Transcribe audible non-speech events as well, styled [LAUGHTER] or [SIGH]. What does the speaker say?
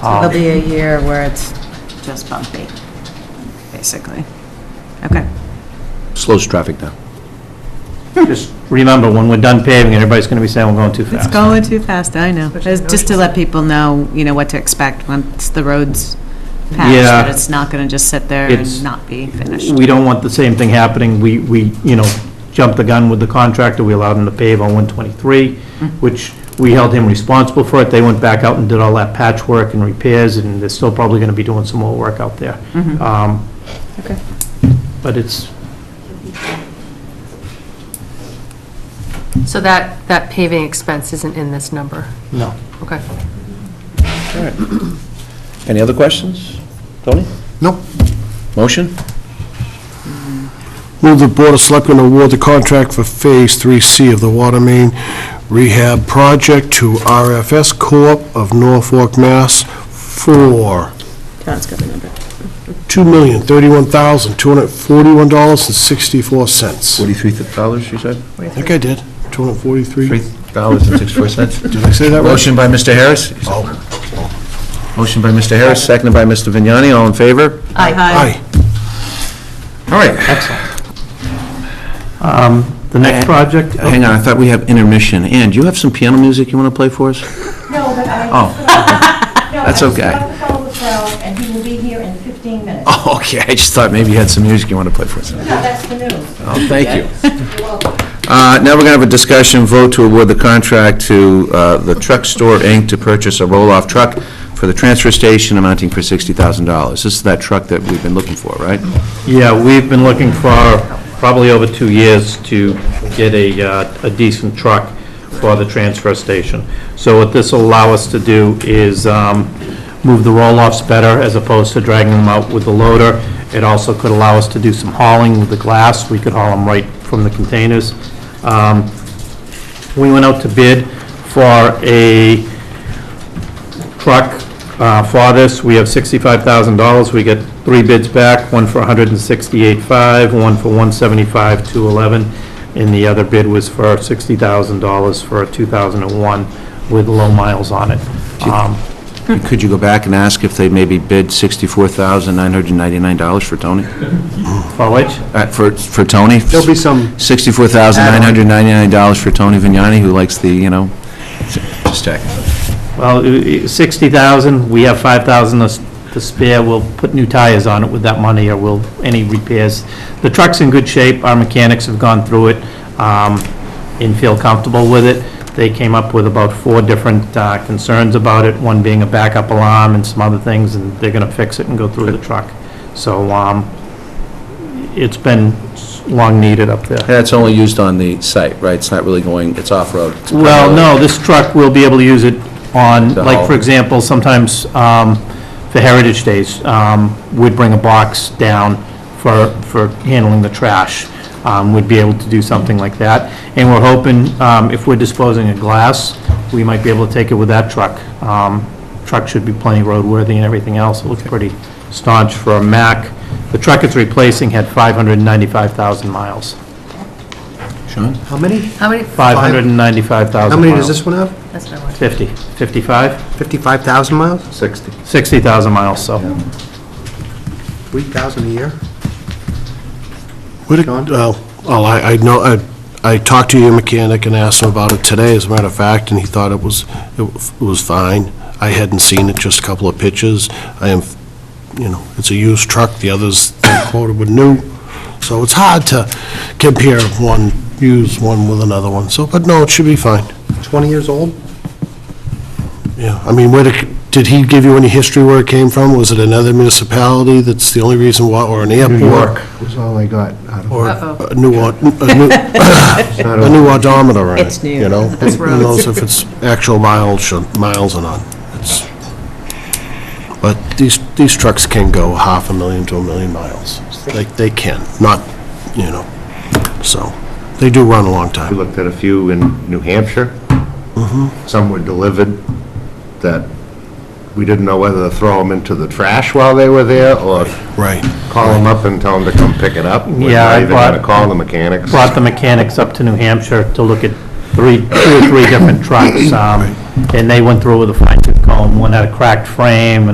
So there'll Um, be a year where it's just bumpy, basically. Okay. slows traffic down. Just remember, when we're done paving, everybody's going to be saying we're going too It's fast. going too fast, I know. It's Just to let people know, you know, what to expect once the road's patched, Yeah. that it's not going to just sit there It's- and not be finished. We don't want the same thing happening. We, we, you know, jumped the gun with the contractor. We allowed him to pave on 123, which we held him responsible for it. They went back out and did all that patchwork and repairs, and they're still probably going to be doing some more work out there. Um, Okay. But it's, So that, that paving expense isn't in this number? no. Okay. Any other questions? Tony? No. Motion? Move the Board of Selectmen award the contract for Phase 3C of the water main rehab project to RFS Corp. of Norfolk, Mass. for Todd's got the number. $2,031,241.64. Forty-three dollars, you said? I think I did. 243. dollars and sixty-four [LAUGHS] cents. Did I say that right? Motion by Mr. Harris? Motion by Mr. Harris, seconded by Mr. Vignani, all in favor? Aye. All right, Um, The next project, hang on, I thought we have intermission. Ann, do you have some piano music you want to play for us? [LAUGHS] No, but I... Oh. No, That's okay. I just got the call with Ralph, and he will be here in 15 minutes. No, [LAUGHS] Oh, okay, I just thought maybe you had some music you want to play for us. that's the news. Oh, thank you. Uh, Now we're going to have a discussion vote to award the contract to uh, the Truck Store, Inc. to purchase a roll-off truck for the transfer station amounting for $60,000. This is that truck that we've been looking for, right? yeah, we've been looking for probably over two years to get a uh, a decent truck for the transfer station. So what this will allow us to do is um, move the roll-offs better as opposed to dragging them out with the loader. It also could allow us to do some hauling with the glass. We could haul them right from the containers. Um, We went out to bid for a truck uh, for this. We have $65,000. We get three bids back, one for $168,500, one for $175,211, and the other bid was for $60,000 for a 2001 with low miles on it. Um, Could you go back and ask if they maybe bid $64,999 for Tony? For which? Uh, For for Tony? There'll be some, $64,999 for Tony Vignani, who likes the, you know, just check. Well, i- i- 60,000, we have 5,000 us- to spare, we'll put new tires on it with that money, or will, any repairs. The truck's in good shape, our mechanics have gone through it um, and feel comfortable with it. They came up with about four different uh, concerns about it, one being a backup alarm and some other things, and they're going to fix it and go through the truck. So um, it's been s- long needed up there. And it's only used on the site, right? It's not really going, it's off-road. It's Well, primarily- no, this truck will be able to use it on, To like, haul. for example, sometimes um, for Heritage Days, um, we'd bring a box down for, for handling the trash. Um, We'd be able to do something like that. And we're hoping, um, if we're disposing of glass, we might be able to take it with that truck. Um, Truck should be plenty roadworthy and everything else. It looks pretty staunch for a Mack. The truck it's replacing had 595,000 miles. Sean? how many? How many, 595,000 miles. How many does this one have? that's what I wanted. 50, 55, 55,000 miles? 60. 60,000 miles, so. 3,000 a year? What did- Well, well, I, I know, I, I talked to your mechanic and asked him about it today, as a matter of fact, and he thought it was, it was fine. I hadn't seen it, just a couple of pictures. I am, you know, it's a used truck, the others they quoted were new, so it's hard to compare one, use one with another one, so, but no, it should be fine. 20 years old? Yeah, I mean, where did, did he give you any history where it came from? Was it another municipality that's the only reason why, or an airport? Was all I got out of Or Uh-oh. a new, od- a new, [LAUGHS] a new odometer on it. It's new. You know? That's Who knows if it's actual miles, or- miles or not. It's- But these, these trucks can go half a million to a million miles. They, they can, not, you know, so, they do run a long We time. looked at a few in New Hampshire. Mm-hmm. Some were delivered that we didn't know whether to throw them into the trash while they were there or Right. call them up and tell them to come pick it up. We're Yeah, I not even going to bought- call the mechanics. Brought the mechanics up to New Hampshire to look at three, two or three different trucks, um, and they went through with a fine tooth home. One had a cracked frame,